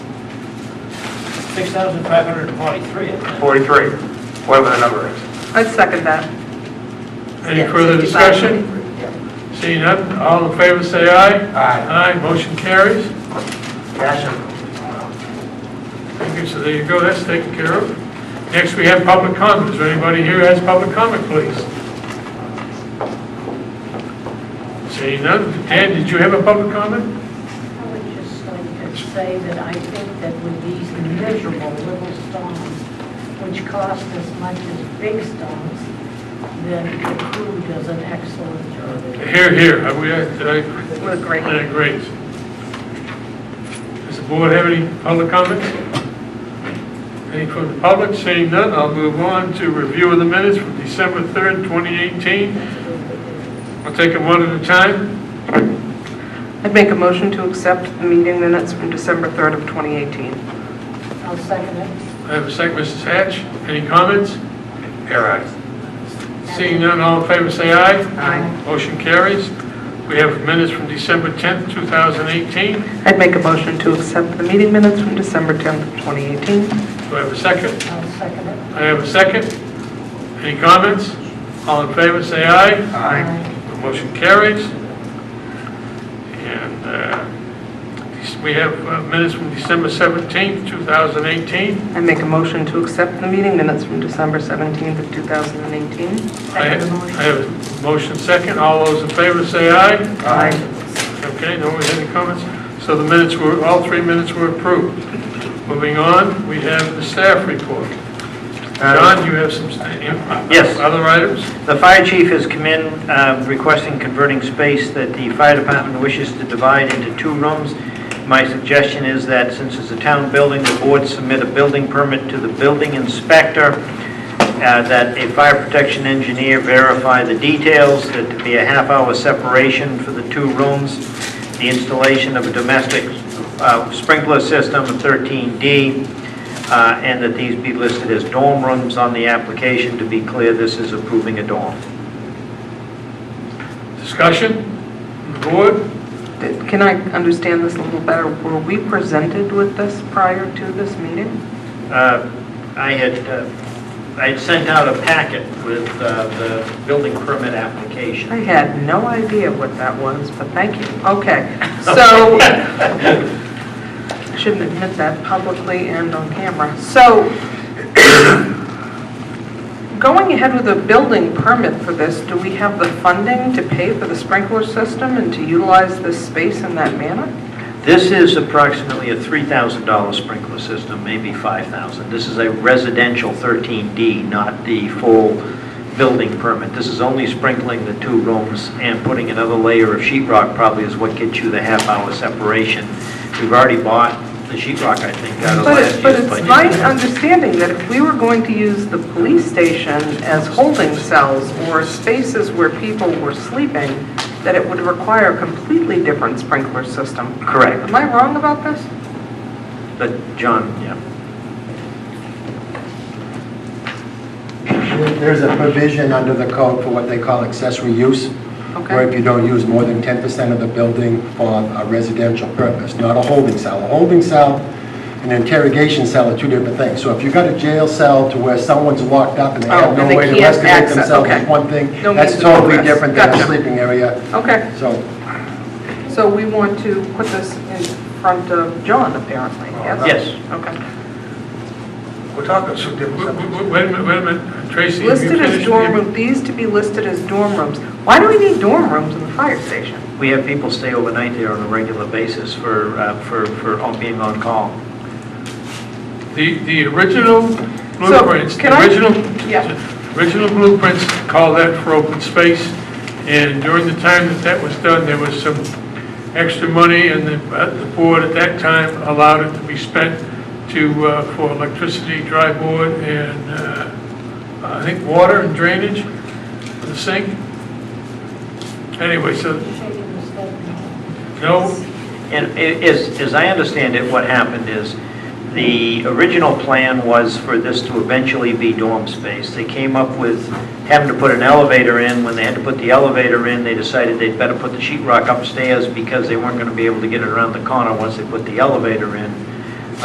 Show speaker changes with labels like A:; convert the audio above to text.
A: 6,543, isn't it?
B: 43, whatever the number is.
C: I'd second that.
D: Any further discussion? Seeing none, all in favor, say aye.
B: Aye.
D: Aye, motion carries.
B: Cash
D: Thank you, so there you go, that's taken care of. Next, we have public comment. Is there anybody here who has public comment, please? Seeing none, Dan, did you have a public comment?
E: I would just like to say that I think that with these miserable little stones, which cost as much as big stones, that the crew does an excellent job.
D: Here, here, are we, uh, did I?
C: We're great.
D: Yeah, great. Does the board have any public comments? Any from the public? Seeing none, I'll move on to review of the minutes from December 3rd, 2018. I'll take them one at a time.
C: I'd make a motion to accept the meeting minutes from December 3rd of 2018.
E: I'll second it.
D: I have a second, Mrs. Hatch. Any comments?
B: Air ayes.
D: Seeing none, all in favor, say aye.
C: Aye.
D: Motion carries. We have minutes from December 10th, 2018. Do
C: I'd make a motion to accept the meeting minutes from December 10th of 2018.
D: I have a second?
E: I'll second it.
D: I have a second. Any comments? All in favor, say aye.
E: Aye.
D: The motion carries. And uh, we have uh, minutes from December 17th, 2018.
C: I'd make a motion to accept the meeting minutes from December 17th of 2018.
D: I have I have a motion second. All those in favor, say aye.
C: Aye.
D: Okay, no one had any comments? So the minutes were, all three minutes were approved. Moving on, we have the staff report. John, you have some sta-
F: Yes.
D: other items?
F: The fire chief has come in uh, requesting converting space that the fire department wishes to divide into two rooms. My suggestion is that since it's a town building, the board submit a building permit to the building inspector, uh, that a fire protection engineer verify the details, that to be a half-hour separation for the two rooms, the installation of a domestic uh, sprinkler system, 13D, uh, and that these be listed as dorm rooms on the application. To be clear, this is approving a dorm.
D: Discussion? The Board?
C: Did- Can I understand this a little better? Were we presented with this prior to this meeting?
F: Uh, I had, uh, I had sent out a packet with uh, the building permit
C: I
F: application.
C: had no idea what that was, but thank you. Okay, so, I shouldn't admit that publicly and on camera. So, going ahead with a building permit for this, do we have the funding to pay for the sprinkler system and to utilize this space in that manner?
F: This is approximately a $3,000 sprinkler system, maybe 5,000. This is a residential 13D, not the full building permit. This is only sprinkling the two rooms and putting another layer of sheetrock. probably is what gets you the half-hour separation. We've already bought the sheetrock. I think, out of
C: But
F: last
C: it-
F: year's
C: but
F: budget.
C: it's my understanding that if we were going to use the police station as holding cells or spaces where people were sleeping, that it would require a completely different sprinkler system. Am
F: Correct,
C: I wrong about this?
F: but John, yeah.
G: There's a provision under the code for what they call accessory use, where
C: Okay.
G: if you don't use more than 10% of the building for a residential purpose, not a holding cell. A holding cell and an interrogation cell are two different things. So if you've got a jail cell to where someone's locked up and they
C: Oh,
G: have no
C: and they
G: way to
C: can't
G: investigate
C: access,
G: themselves,
C: okay.
G: is one thing.
C: No
G: That's
C: means of
G: totally
C: progress.
G: different than
C: Gotcha.
G: a sleeping area.
C: Okay,
G: So
C: so we want to put this in front of John apparently, yes?
F: Oh, Yes.
C: Okay.
B: We're talking some
D: Wait
B: different
D: wait-
B: subjects.
D: wait- wait a minute, wait a minute, Tracy. have you
C: Listed as
D: finished?
C: dorm room, these to be listed as dorm rooms. Why do we need dorm rooms in the fire station?
F: We have people stay overnight there on a regular basis for, uh, for, for on- being on call.
D: The, the original blueprints,
C: can I-
D: the original,
C: Yeah.
D: original blueprints call that for open space, and during the time that that was done, there was some extra money, and the, uh, the board at that time allowed it to be spent to, uh, for electricity, dry board, and, uh, I think water and drainage, for the sink. Anyway, so,
E: Shaking the stone.
D: no,
F: And i- as, as I understand it, what happened is, the original plan was for this to eventually be dorm space. They came up with having to put an elevator in. When they had to put the elevator in, they decided they'd better put the sheetrock upstairs because they weren't going to be able to get it around the corner once they put the elevator in.